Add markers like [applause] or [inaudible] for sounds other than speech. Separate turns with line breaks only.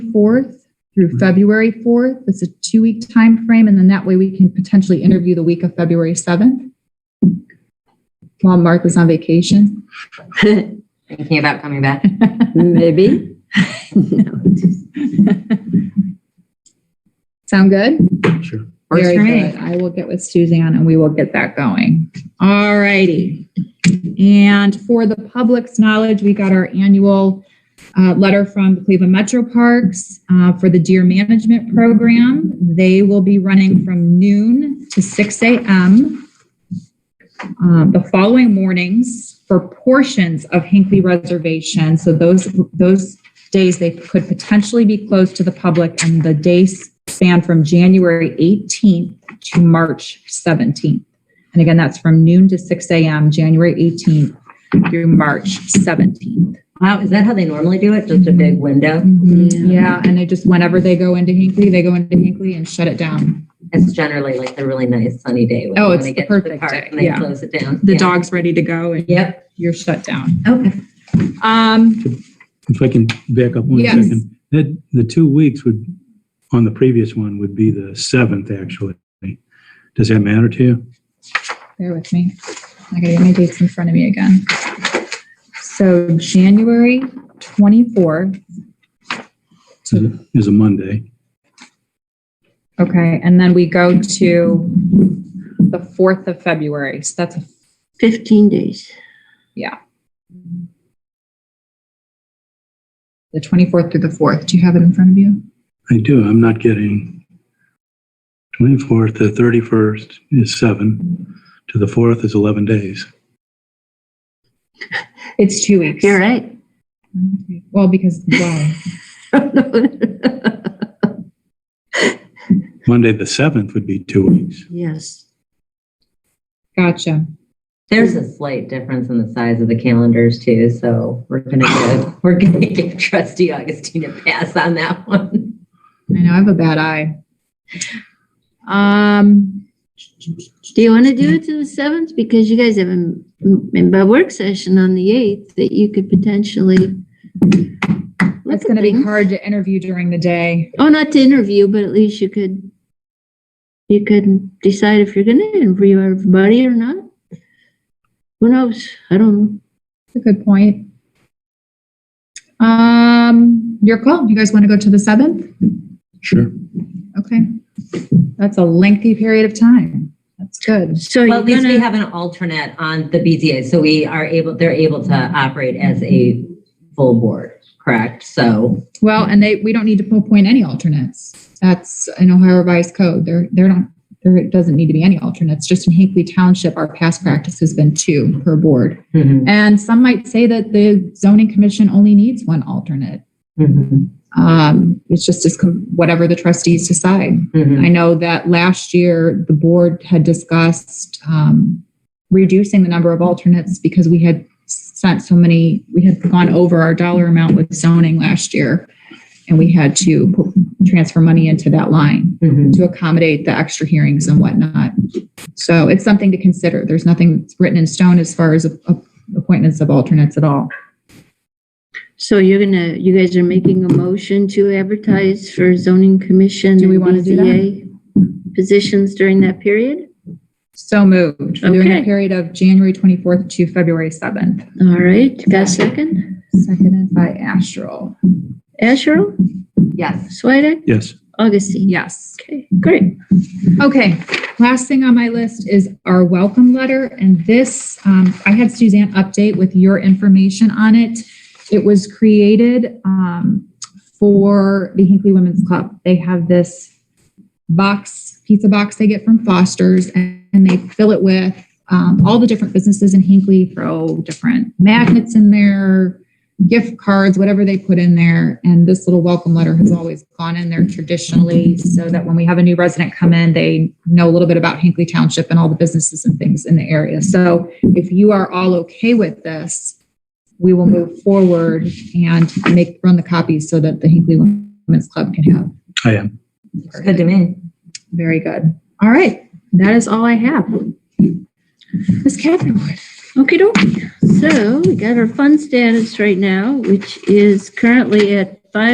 4th through February 4th. It's a two-week time frame, and then that way we can potentially interview the week of February 7th while Mark was on vacation.
Thinking about coming back. [laughs]
Maybe.
[laughs] Sound good?
Sure.
Works
Very
for me.
good. I will get with Suzanne and we will get that going. All righty. And for the public's knowledge, we got our annual uh, letter from the Cleveland Metro Parks uh, for the Deer Management Program. They will be running from noon to 6 a.m. um, the following mornings for portions of Hinckley Reservation. So those, those days they could potentially be closed to the public and the days span from January 18th to March 17th. And again, that's from noon to 6 a.m., January 18th through March 17th.
Wow, is that how they normally do it? Just a big window?
Yeah, and they just, whenever they go into Hinckley, they go into Hinckley and shut it down.
It's generally like a really nice sunny day. when
Oh,
you
it's the
wanna get to
perfect
park
day,
And they
yeah.
close it down.
The
Yeah.
dog's ready to go and
Yep.
you're shut down.
Okay.
Um,
If I can back up one
Yes.
second, that, the two weeks would, on the previous one, would be the seventh, actually. Does that matter to you?
bear with me. I gotta get my dates in front of me again. So January 24th,
Is it- Is a Monday.
okay, and then we go to the 4th of February. So that's a
15 days.
the 24th through the 4th. Do you have it in front of you?
I do, I'm not getting. 24th to 31st is seven, to the 4th is 11 days.
It's two weeks.
You're right.
Well, because, wow.
Monday, the 7th would be two weeks.
Yes.
Gotcha.
There's a slight difference in the size of the calendars too, so we're gonna
[laughs]
give, we're gonna give trustee Augustine a pass on that one.
I know, I have a bad eye. Um,
Do you want to do it to the 7th? Because you guys have a, a work session on the 8th that you could potentially. look
it's
at
going to be
things.
hard to interview during the day.
Oh, not to interview, but at least you could, you could decide if you're going to interview everybody or not. Who knows? I don't know.
That's a good point. Um, your call. You guys want to go to the 7th?
Sure.
Okay. That's a lengthy period of time. That's good.
So
Well,
you're
at least we
gonna,
have an alternate on the BZA, so we are able, they're able to operate as a full board, correct? So,
Well, and they, we don't need to appoint any alternates. That's an Ohio revised code. There, there don't, there doesn't need to be any alternates. Just in Hinckley Township, our past practice has been two per board.
mhm,
And some might say that the zoning commission only needs one alternate.
mhm,
Um, it's just as com- whatever the trustees decide.
mhm.
I know that last year, the board had discussed um, reducing the number of alternates because we had sent so many, we had gone over our dollar amount with zoning last year. And we had to pu- transfer money into that line
mhm.
to accommodate the extra hearings and whatnot. So it's something to consider. There's nothing that's written in stone as far as a- a- appointments of alternates at all.
so you're gonna, you guys are making a motion to advertise for zoning commission.
Do we
and
wanna do that?
BZA Positions during that period?
So moved. During the
Okay.
period of January 24th to February 7th.
All right, got a second?
Seconded by Astral.
Asherle,
Yes.
Swedek,
Yes,
Augustine?
Yes.
Okay, great.
Okay, last thing on my list is our welcome letter, and this, um, I had Suzanne update with your information on it. It was created, um, for the Hinkley Women's Club. They have this box, pizza box they get from Foster's, and and they fill it with, um, all the different businesses in Hinkley, throw different magnets in there, gift cards, whatever they put in there. And this little welcome letter has always gone in there traditionally so that when we have a new resident come in, they know a little bit about Hinckley Township and all the businesses and things in the area. So if you are all okay with this, we will move forward and make, run the copies so that the Hinckley Women's Club can have.
I am.
It's good to me.
Very good. All right. That is all I have. Ms. Catherine Wood.
Okay, doke. So we got our fund status right now, which is currently at